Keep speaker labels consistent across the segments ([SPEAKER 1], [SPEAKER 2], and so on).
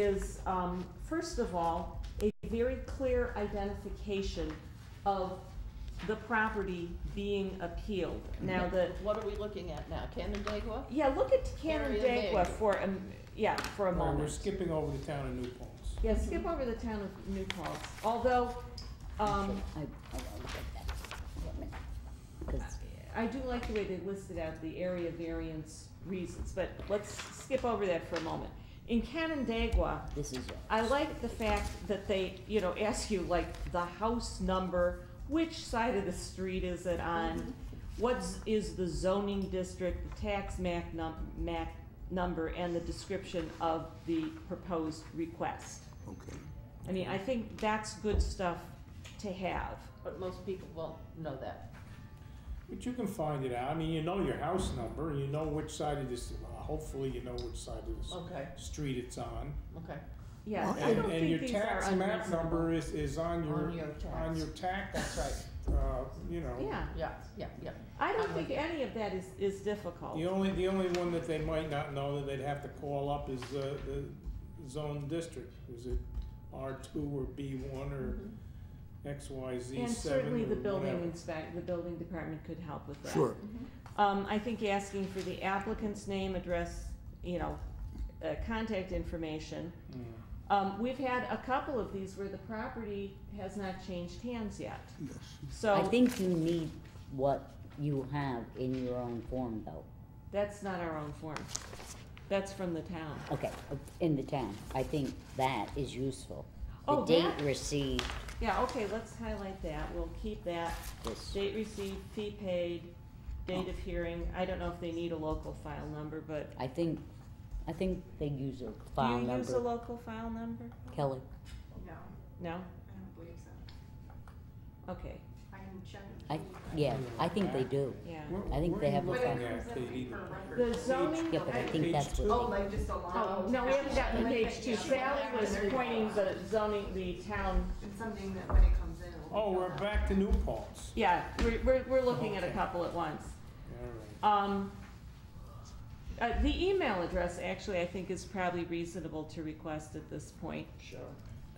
[SPEAKER 1] is, um, first of all, a very clear identification of the property being appealed. Now, the,
[SPEAKER 2] What are we looking at now, Canandaigua?
[SPEAKER 1] yeah, look at
[SPEAKER 2] Area
[SPEAKER 1] Canandaigua
[SPEAKER 2] big.
[SPEAKER 1] for, um, yeah, for a
[SPEAKER 3] All right, We're
[SPEAKER 1] moment.
[SPEAKER 3] skipping over the town of New Paltz.
[SPEAKER 1] Yeah, skip over the town of New Paltz, although, um,
[SPEAKER 4] I, I will look at that. Wait a minute. 'Cause-
[SPEAKER 1] I do like the way they listed out the area variance reasons, but let's skip over that for a moment. In Canandaigua,
[SPEAKER 4] This is yours.
[SPEAKER 1] I like the fact that they, you know, ask you like the house number, which side of the street is it on? What's, is the zoning district, the tax MAC num, MAC number, and the description of the proposed request?
[SPEAKER 5] Okay.
[SPEAKER 1] I mean, I think that's good stuff to have.
[SPEAKER 2] But most people won't know that.
[SPEAKER 3] But you can find it out. I mean, you know your house number, and you know which side of this, well, hopefully you know which side of
[SPEAKER 2] Okay,
[SPEAKER 3] this street it's on.
[SPEAKER 2] okay.
[SPEAKER 1] Yeah, I
[SPEAKER 3] And,
[SPEAKER 1] don't
[SPEAKER 3] and your
[SPEAKER 1] think these are
[SPEAKER 3] tax map number
[SPEAKER 1] unreasonable.
[SPEAKER 3] is, is on
[SPEAKER 2] On
[SPEAKER 3] your,
[SPEAKER 2] your
[SPEAKER 3] on
[SPEAKER 2] tax.
[SPEAKER 3] your tax,
[SPEAKER 2] That's right.
[SPEAKER 3] uh, you know.
[SPEAKER 1] Yeah,
[SPEAKER 2] Yeah, yeah, yeah.
[SPEAKER 1] I don't
[SPEAKER 2] I'm
[SPEAKER 1] think
[SPEAKER 2] with you.
[SPEAKER 1] any of that is, is difficult.
[SPEAKER 3] The only, the only one that they might not know that they'd have to call up is the, the zone district. Is it R two or B one or
[SPEAKER 2] Mm-hmm.
[SPEAKER 3] X, Y, Z seven
[SPEAKER 1] And certainly the
[SPEAKER 3] or whatever.
[SPEAKER 1] building inspect, the building department could help with that.
[SPEAKER 5] Sure.
[SPEAKER 1] Um, I think asking for the applicant's name, address, you know, uh, contact information.
[SPEAKER 3] Mm.
[SPEAKER 1] Um, we've had a couple of these where the property has not changed hands yet,
[SPEAKER 5] Yes.
[SPEAKER 4] I
[SPEAKER 1] so
[SPEAKER 4] think you need what you have in your own form though.
[SPEAKER 1] that's not our own form. That's from the town.
[SPEAKER 4] Okay, uh, in the town. I think that is useful.
[SPEAKER 1] Oh,
[SPEAKER 4] The
[SPEAKER 1] that-
[SPEAKER 4] date received,
[SPEAKER 1] Yeah, okay, let's highlight that, we'll keep that.
[SPEAKER 4] this,
[SPEAKER 1] Date received, fee paid,
[SPEAKER 4] Oh.
[SPEAKER 1] date of hearing, I don't know if they need a local file number, but
[SPEAKER 4] I think, I think they use a
[SPEAKER 1] do
[SPEAKER 4] file
[SPEAKER 1] you use a
[SPEAKER 4] number,
[SPEAKER 1] local file number?
[SPEAKER 4] Kelly.
[SPEAKER 6] No,
[SPEAKER 1] No?
[SPEAKER 6] I don't believe so.
[SPEAKER 1] Okay,
[SPEAKER 6] I can check.
[SPEAKER 4] I, yeah, I think they do.
[SPEAKER 1] yeah.
[SPEAKER 3] Where-
[SPEAKER 4] I think
[SPEAKER 3] where
[SPEAKER 4] they
[SPEAKER 3] you
[SPEAKER 4] have a
[SPEAKER 6] But
[SPEAKER 3] looking
[SPEAKER 6] it
[SPEAKER 4] file.
[SPEAKER 3] at,
[SPEAKER 6] comes up
[SPEAKER 3] Katie?
[SPEAKER 6] per record.
[SPEAKER 1] The zoning.
[SPEAKER 4] Yeah, but I think
[SPEAKER 3] Page
[SPEAKER 4] that's
[SPEAKER 3] two.
[SPEAKER 4] what,
[SPEAKER 6] Oh, like just allow.
[SPEAKER 1] Oh, no, we haven't gotten to page two. Sally was pointing the zoning, the town,
[SPEAKER 6] It's something that when it comes in, it will be.
[SPEAKER 3] Oh, we're
[SPEAKER 6] filled out.
[SPEAKER 3] back to New Paltz.
[SPEAKER 1] yeah, we're, we're, we're looking at a couple at once.
[SPEAKER 3] All right.
[SPEAKER 1] Um, uh, the email address, actually, I think is probably reasonable to request at this point,
[SPEAKER 2] Sure.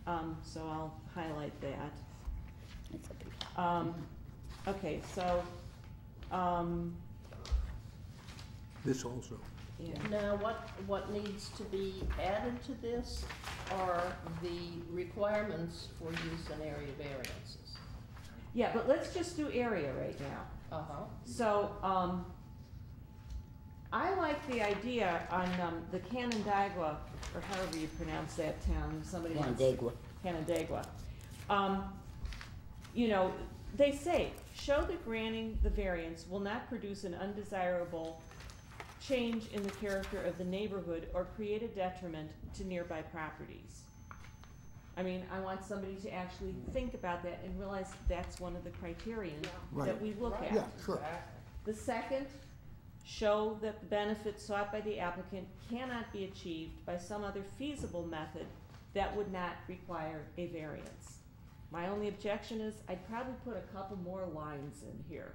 [SPEAKER 1] um, so I'll highlight that.
[SPEAKER 4] it's a big-
[SPEAKER 1] Um, okay, so, um,
[SPEAKER 5] This also.
[SPEAKER 1] yeah,
[SPEAKER 2] Now, what, what needs to be added to this are the requirements for use and area variances.
[SPEAKER 1] yeah, but let's just do area right now.
[SPEAKER 2] Uh-huh.
[SPEAKER 1] So, um, I like the idea on, um, the Canandaigua, or however you pronounce that town, somebody
[SPEAKER 4] yeah,
[SPEAKER 1] wants.
[SPEAKER 4] Daigua.
[SPEAKER 1] Canandaigua. Um, you know, they say, show that granting the variance will not produce an undesirable change in the character of the neighborhood or create a detriment to nearby properties. I mean, I want somebody to actually think about that and realize that's one of the criterion that
[SPEAKER 5] Right.
[SPEAKER 1] we look at.
[SPEAKER 5] Yeah, sure.
[SPEAKER 1] The second, show that the benefit sought by the applicant cannot be achieved by some other feasible method that would not require a variance. My only objection is I'd probably put a couple more lines in here.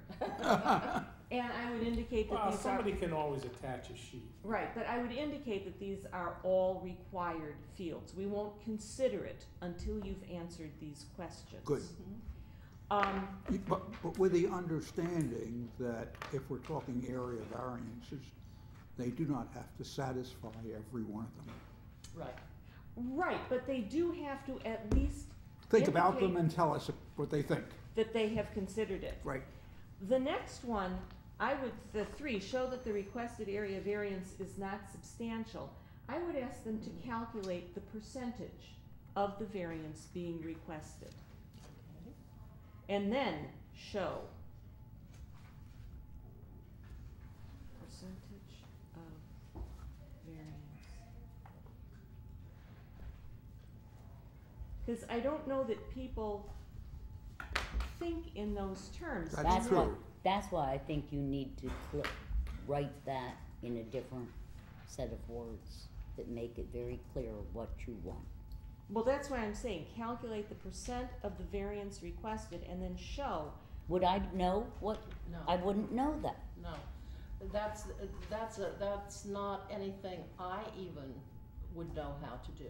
[SPEAKER 1] And I would indicate that
[SPEAKER 3] Well,
[SPEAKER 1] these are,
[SPEAKER 3] somebody can always attach a sheet.
[SPEAKER 1] right, but I would indicate that these are all required fields. We won't consider it until you've answered these questions.
[SPEAKER 5] Good.
[SPEAKER 1] Um,
[SPEAKER 5] But, but with the understanding that if we're talking area variances, they do not have to satisfy every one of them.
[SPEAKER 2] Right.
[SPEAKER 1] right, but they do have to at least
[SPEAKER 5] Think about them
[SPEAKER 1] Indicate-
[SPEAKER 5] and tell us what they think.
[SPEAKER 1] that they have considered it.
[SPEAKER 5] Right.
[SPEAKER 1] The next one, I would, the three, show that the requested area variance is not substantial. I would ask them to calculate the percentage of the variance being requested. And then show. Percentage of variance. Cause I don't know that people think in those terms.
[SPEAKER 5] That's
[SPEAKER 4] That's why,
[SPEAKER 5] true.
[SPEAKER 4] that's why I think you need to cl- write that in a different set of words that make it very clear what you want.
[SPEAKER 1] Well, that's why I'm saying calculate the percent of the variance requested and then show.
[SPEAKER 4] Would I know what,
[SPEAKER 2] No.
[SPEAKER 4] I wouldn't know that.
[SPEAKER 2] No, that's, that's, a- that's not anything I even would know how to do.